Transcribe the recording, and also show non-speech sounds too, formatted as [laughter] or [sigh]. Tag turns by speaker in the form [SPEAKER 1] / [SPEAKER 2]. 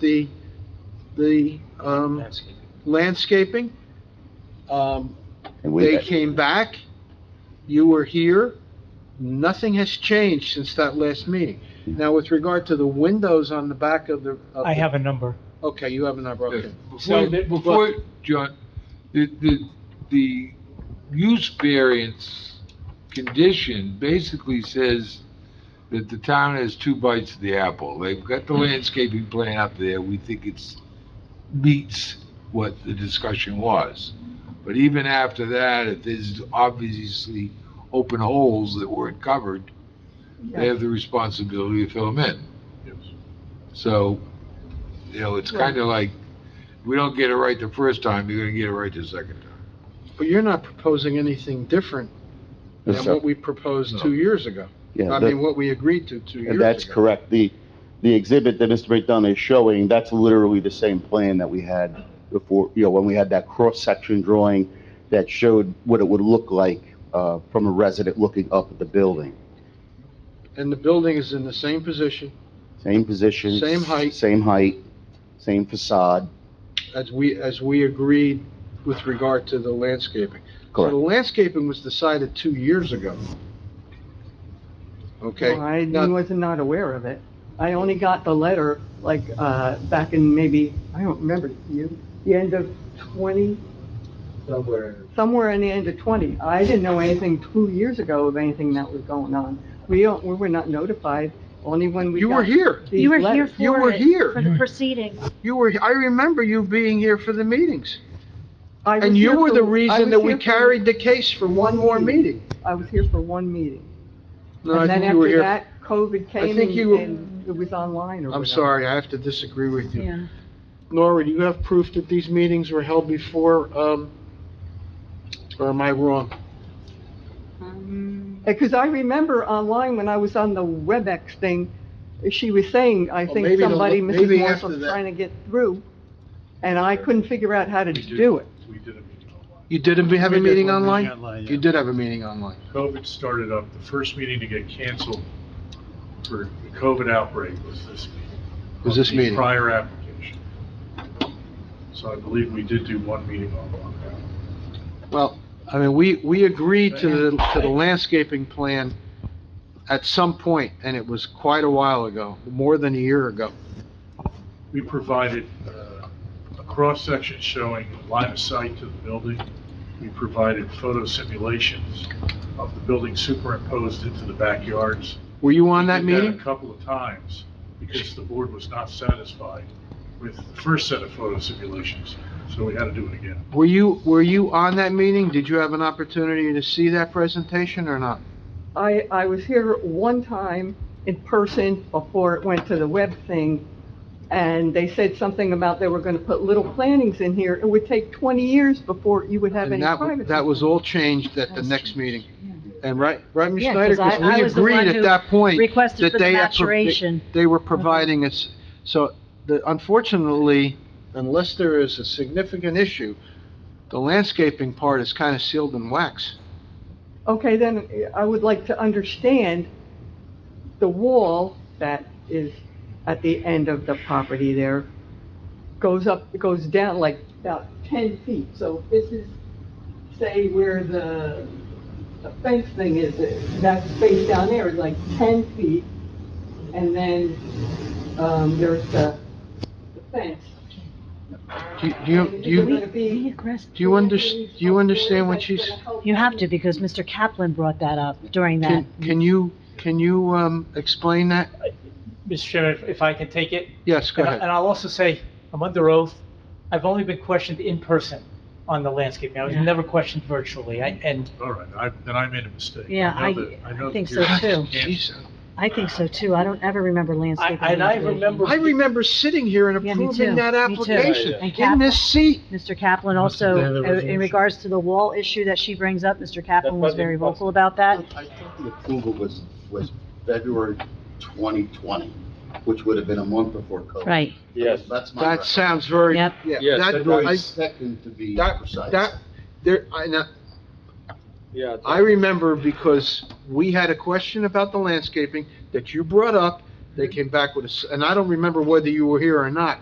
[SPEAKER 1] the, the, um,
[SPEAKER 2] landscaping.
[SPEAKER 1] landscaping. Um,
[SPEAKER 3] And we,
[SPEAKER 1] they came back, you were here, nothing has changed since that last meeting. Now, with regard to the windows on the back of the. of
[SPEAKER 4] I
[SPEAKER 1] the-
[SPEAKER 4] have a number.
[SPEAKER 1] Okay, you have a number,
[SPEAKER 5] Yes.
[SPEAKER 1] okay.
[SPEAKER 5] Before,
[SPEAKER 1] So-
[SPEAKER 5] before, John, the, the, the use variance condition basically says that the town has two bites of the apple. They've got the landscaping plan up there, we think it's, meets what the discussion was. But even after that, if there's obviously open holes that weren't covered, they have the responsibility to fill them in. So, you know, it's kind of like, we don't get it right the first time, you're gonna get it right the second time.
[SPEAKER 1] But you're not proposing anything different than
[SPEAKER 3] That's-
[SPEAKER 1] what we proposed two years ago.
[SPEAKER 3] yeah,
[SPEAKER 1] I
[SPEAKER 3] that-
[SPEAKER 1] mean, what we agreed to two years ago.
[SPEAKER 3] and that's correct. The, the exhibit that Mr. McDonough is showing, that's literally the same plan that we had before, you know, when we had that cross-section drawing that showed what it would look like, uh, from a resident looking up at the building.
[SPEAKER 1] And the building is in the same position
[SPEAKER 3] Same position.
[SPEAKER 1] Same height.
[SPEAKER 3] Same height, same facade,
[SPEAKER 1] as we, as we agreed with regard to the landscaping. So
[SPEAKER 3] correct.
[SPEAKER 1] the landscaping was decided two years ago. Okay?
[SPEAKER 6] Well, I
[SPEAKER 1] Now-
[SPEAKER 6] was not aware of it. I only got the letter, like, uh, back in maybe, I don't remember, you, the end of 20,
[SPEAKER 2] Somewhere.
[SPEAKER 6] somewhere in the end of 20. I didn't know anything two years ago of anything that was going on. We don't, we were not notified, only when we
[SPEAKER 1] You were
[SPEAKER 6] got
[SPEAKER 1] here.
[SPEAKER 6] these
[SPEAKER 7] You were here
[SPEAKER 6] letters.
[SPEAKER 7] for
[SPEAKER 1] You were
[SPEAKER 7] it,
[SPEAKER 1] here.
[SPEAKER 7] For the proceedings.
[SPEAKER 1] You were, I remember you being here for the meetings.
[SPEAKER 6] I was
[SPEAKER 1] And
[SPEAKER 6] here
[SPEAKER 1] you were
[SPEAKER 6] for-
[SPEAKER 1] the
[SPEAKER 6] I
[SPEAKER 1] reason
[SPEAKER 6] was
[SPEAKER 1] that we
[SPEAKER 6] here for-
[SPEAKER 1] carried the case for one more meeting.
[SPEAKER 6] I was here for one meeting.
[SPEAKER 1] No, I
[SPEAKER 6] And then
[SPEAKER 1] think you were
[SPEAKER 6] after
[SPEAKER 1] here.
[SPEAKER 6] that, COVID came
[SPEAKER 1] think you-
[SPEAKER 6] and- and it was online or whatever.
[SPEAKER 1] I'm sorry, I have to disagree with you. Nora, do you have proof that these meetings were held before, um, or am I wrong?
[SPEAKER 7] Um,
[SPEAKER 6] Because Uh, I remember online when I was on the WebEx thing, she was saying, I
[SPEAKER 1] Well, maybe
[SPEAKER 6] think
[SPEAKER 1] the-
[SPEAKER 6] somebody,
[SPEAKER 1] maybe
[SPEAKER 6] Mrs. Morse
[SPEAKER 1] after
[SPEAKER 6] was
[SPEAKER 1] that.
[SPEAKER 6] trying to get through, and I couldn't figure out how to do it.
[SPEAKER 8] We did a meeting online.
[SPEAKER 1] You did have a
[SPEAKER 8] We
[SPEAKER 1] meeting
[SPEAKER 8] did one meeting
[SPEAKER 1] online?
[SPEAKER 8] online,
[SPEAKER 1] You
[SPEAKER 8] yeah.
[SPEAKER 1] did have a meeting online.
[SPEAKER 8] COVID started up, the first meeting to get canceled for the COVID outbreak was this meeting.
[SPEAKER 1] Was this
[SPEAKER 8] The
[SPEAKER 1] meeting?
[SPEAKER 8] Prior application. So I believe we did do one meeting online.
[SPEAKER 1] Well, I mean, we, we agreed to the, to the landscaping plan at some point, and it was quite a while ago, more than a year ago.
[SPEAKER 8] We provided uh, a cross-section showing line of sight to the building. We provided photo simulations of the building superimposed into the backyards.
[SPEAKER 1] Were you on that
[SPEAKER 8] We did
[SPEAKER 1] meeting?
[SPEAKER 8] A couple of times, because the board was not satisfied with the first set of photo simulations, so we had to do it again.
[SPEAKER 1] Were you, were you on that meeting? Did you have an opportunity to see that presentation or not?
[SPEAKER 6] I, I was here one time in person before it went to the web thing, and they said something about they were gonna put little plantings in here. It would take twenty years before you would have
[SPEAKER 1] And
[SPEAKER 6] any
[SPEAKER 1] that,
[SPEAKER 6] privacy.
[SPEAKER 1] that was all changed at the next meeting. And right, right, Ms.
[SPEAKER 7] Yeah,
[SPEAKER 1] Schneider,
[SPEAKER 7] 'cause I-
[SPEAKER 1] because we
[SPEAKER 7] I was the one
[SPEAKER 1] agreed
[SPEAKER 7] who
[SPEAKER 1] at that point.
[SPEAKER 7] requested
[SPEAKER 1] that
[SPEAKER 7] for the
[SPEAKER 1] they had pro- they-
[SPEAKER 7] maturation.
[SPEAKER 1] They were providing us, so the, unfortunately, unless there is a significant issue, the landscaping part is kind of sealed in wax.
[SPEAKER 6] Okay, then uh, I would like to understand the wall that is at the end of the property there goes up, goes down like about 10 feet. So if this is, say, where the the fence thing is, uh, that space down there is like 10 feet. And then um, there's the the fence.
[SPEAKER 1] Do you- do you, do you,
[SPEAKER 6] It'd be-
[SPEAKER 7] Be aggressive.
[SPEAKER 1] do you under, do you understand what she's,
[SPEAKER 7] You have to, because Mr. Kaplan brought that up during that.
[SPEAKER 1] can, can you, can you, um, explain that?
[SPEAKER 4] Mr. Chairman, if- if I can take it?
[SPEAKER 1] Yes, go
[SPEAKER 4] And I-
[SPEAKER 1] ahead.
[SPEAKER 4] And I'll also say, I'm under oath. I've only been questioned in person on the landscaping. I was
[SPEAKER 7] Yeah.
[SPEAKER 4] never questioned virtually. I- And
[SPEAKER 8] All right, I, then I made a mistake.
[SPEAKER 7] Yeah,
[SPEAKER 8] know
[SPEAKER 7] I-
[SPEAKER 8] that- know
[SPEAKER 7] I think
[SPEAKER 8] that
[SPEAKER 7] so,
[SPEAKER 8] you're-
[SPEAKER 1] [laughs]
[SPEAKER 7] too.
[SPEAKER 1] Jeez.
[SPEAKER 7] I think so too. I don't ever remember
[SPEAKER 4] I,
[SPEAKER 7] landscaping.
[SPEAKER 4] and I
[SPEAKER 7] evaluation.
[SPEAKER 4] remember.
[SPEAKER 1] I remember sitting here and
[SPEAKER 7] Yeah, me too.
[SPEAKER 1] approving that
[SPEAKER 7] Me too.
[SPEAKER 1] application
[SPEAKER 7] And
[SPEAKER 1] in
[SPEAKER 7] Kaplan-
[SPEAKER 1] this seat.
[SPEAKER 7] Mr. Kaplan also,
[SPEAKER 8] have the
[SPEAKER 7] uh, in
[SPEAKER 8] resolution.
[SPEAKER 7] regards to the wall issue that she brings up, Mr. Kaplan
[SPEAKER 2] That
[SPEAKER 7] was very
[SPEAKER 2] wasn't possible.
[SPEAKER 7] vocal about that.
[SPEAKER 3] I thought the approval was, was February 2020, which would have been a month before COVID.
[SPEAKER 7] Right.
[SPEAKER 2] Yes.
[SPEAKER 3] That's my.
[SPEAKER 1] That sounds very, yeah,
[SPEAKER 7] Yep.
[SPEAKER 2] Yes,
[SPEAKER 1] that,
[SPEAKER 2] that-
[SPEAKER 1] I,
[SPEAKER 3] February second to be
[SPEAKER 1] that-
[SPEAKER 3] precise.
[SPEAKER 1] that, there, I, now,
[SPEAKER 2] Yeah.
[SPEAKER 1] I remember because we had a question about the landscaping that you brought up, They came back with a, s- and I don't remember whether you were here or not,